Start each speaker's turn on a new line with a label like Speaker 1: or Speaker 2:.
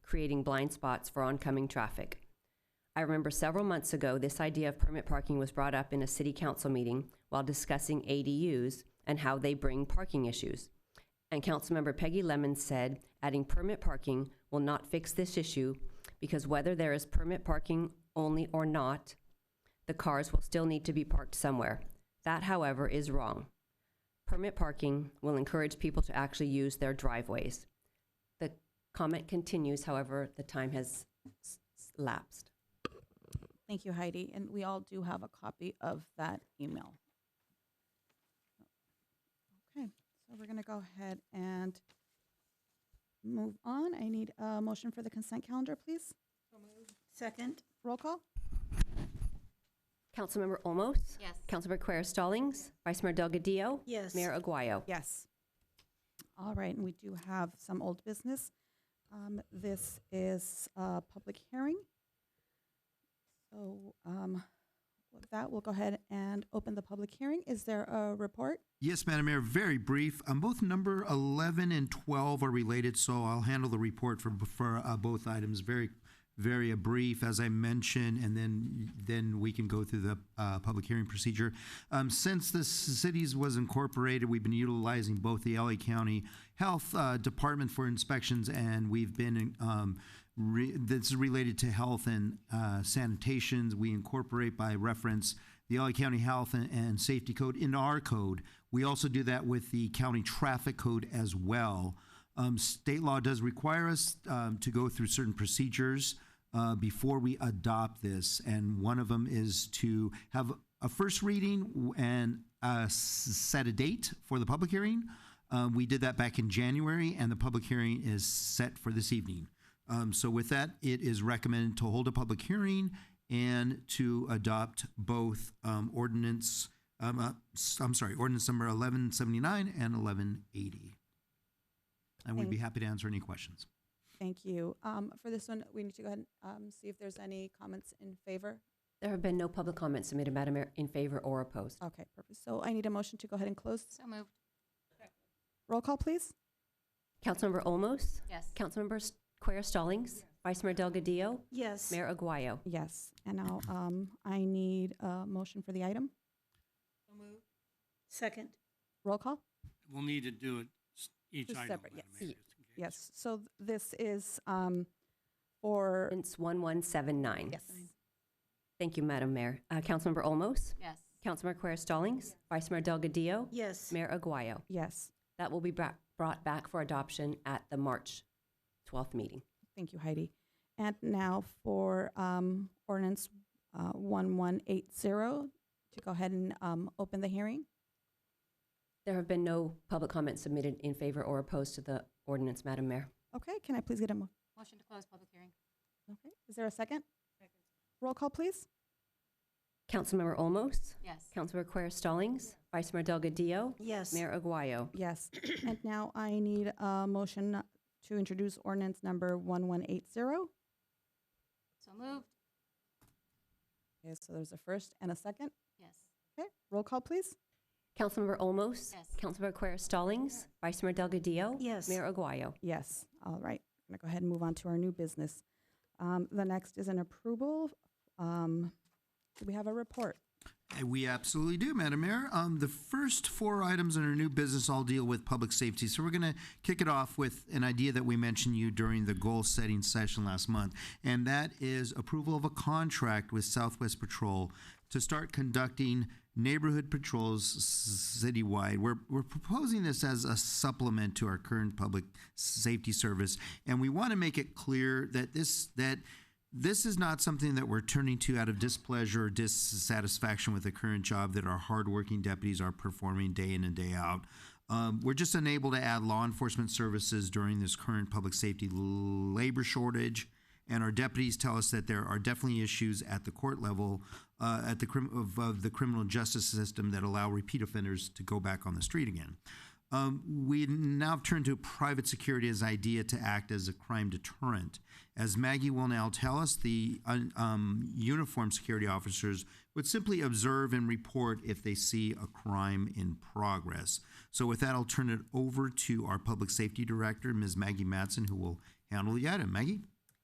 Speaker 1: creating blind spots for oncoming traffic. I remember several months ago, this idea of permit parking was brought up in a city council meeting while discussing ADUs and how they bring parking issues. And Councilmember Peggy Lemon said, adding permit parking will not fix this issue because whether there is permit parking only or not, the cars will still need to be parked somewhere. That, however, is wrong. Permit parking will encourage people to actually use their driveways. The comment continues, however, the time has s- s- lapsed.
Speaker 2: Thank you, Heidi. And we all do have a copy of that email. Okay, so we're going to go ahead and move on. I need a motion for the consent calendar, please.
Speaker 3: Second?
Speaker 2: Roll call?
Speaker 1: Councilmember Olmos?
Speaker 4: Yes.
Speaker 1: Councilmember Quer Stallings? Vice Mayor Delgadillo?
Speaker 3: Yes.
Speaker 1: Mayor Aguayo?
Speaker 2: Yes. All right, and we do have some old business. Um, This is a public hearing. So um, with that, we'll go ahead and open the public hearing. Is there a report?
Speaker 5: Yes, Madam Mayor, very brief. Um, both number 11 and 12 are related, so I'll handle the report for, for uh, both items very, very uh, brief, as I mentioned, and then, then we can go through the uh, public hearing procedure. Um, since the cities was incorporated, we've been utilizing both the LA County Health uh, Department for inspections, and we've been um, re- this is related to health and uh, sanitations. We incorporate by reference the LA County Health and, and Safety Code in our code. We also do that with the County Traffic Code as well. Um, state law does require us um, to go through certain procedures uh, before we adopt this, and one of them is to have a first reading w- and uh, s- set a date for the public hearing. Um, we did that back in January, and the public hearing is set for this evening. Um, so with that, it is recommended to hold a public hearing and to adopt both um, ordinance, um, uh, s- I'm sorry, ordinance number 1179 and 1180. And we'd be happy to answer any questions.
Speaker 2: Thank you. Um, For this one, we need to go ahead and um, see if there's any comments in favor.
Speaker 1: There have been no public comments submitted, Madam Mayor, in favor or opposed.
Speaker 2: Okay, perfect. So I need a motion to go ahead and close.
Speaker 4: So moved.
Speaker 2: Roll call, please.
Speaker 1: Councilmember Olmos?
Speaker 4: Yes.
Speaker 1: Councilmember S- Quer Stallings? Vice Mayor Delgadillo?
Speaker 3: Yes.
Speaker 1: Mayor Aguayo?
Speaker 2: Yes, and now um, I need a motion for the item.
Speaker 3: Second?
Speaker 2: Roll call?
Speaker 6: We'll need to do it s- each
Speaker 2: Just
Speaker 6: item.
Speaker 2: separate,
Speaker 6: Madam
Speaker 2: yes.
Speaker 6: Mayor, just in case.
Speaker 2: Yes, so th- this is um, for,
Speaker 1: Ordinance 1179.
Speaker 2: yes.
Speaker 1: Thank you, Madam Mayor. Uh, Councilmember Olmos?
Speaker 4: Yes.
Speaker 1: Councilmember Quer Stallings? Vice Mayor Delgadillo?
Speaker 3: Yes.
Speaker 1: Mayor Aguayo?
Speaker 2: Yes,
Speaker 1: That will be bra- brought back for adoption at the March 12th meeting.
Speaker 2: thank you, Heidi. And now for um, ordinance uh, 1180, to go ahead and um, open the hearing.
Speaker 1: There have been no public comments submitted in favor or opposed to the ordinance, Madam Mayor.
Speaker 2: Okay, can I please get a, mo-
Speaker 4: Motion to close public hearing.
Speaker 2: okay, is there a second? Roll call, please.
Speaker 1: Councilmember Olmos?
Speaker 4: Yes.
Speaker 1: Councilmember Quer Stallings? Vice Mayor Delgadillo?
Speaker 3: Yes.
Speaker 1: Mayor Aguayo?
Speaker 2: Yes, and now I need a motion to introduce ordinance number 1180.
Speaker 4: So moved.
Speaker 2: Okay, so there's a first and a second.
Speaker 4: Yes.
Speaker 2: Okay, roll call, please.
Speaker 1: Councilmember Olmos?
Speaker 4: Yes.
Speaker 1: Councilmember Quer Stallings? Vice Mayor Delgadillo?
Speaker 3: Yes.
Speaker 1: Mayor Aguayo?
Speaker 2: Yes, all right. I'm going to go ahead and move on to our new business. Um, The next is an approval. Um, Do we have a report?
Speaker 5: Uh, We absolutely do, Madam Mayor. Um, the first four items in our new business all deal with public safety. So we're going to kick it off with an idea that we mentioned you during the goal setting session last month, and that is approval of a contract with Southwest Patrol to start conducting neighborhood patrols s- citywide. We're, we're proposing this as a supplement to our current public safety service, and we want to make it clear that this that this is not something that we're turning to out of displeasure or dissatisfaction with the current job that our hardworking deputies are performing day in and day out. Um, we're just unable to add law enforcement services during this current public safety l- labor shortage. And our deputies tell us that there are definitely issues at the court level, uh, at the crim- of, of the criminal justice system that allow repeat offenders to go back on the street again. Um, we now turn to private security as idea to act as a crime deterrent. As Maggie will now tell us, the un- um, uniformed security officers would simply observe and report if they see a crime in progress. So, with that, I'll turn it over to our public safety director, Ms. Maggie Matson, who will handle the item. Maggie?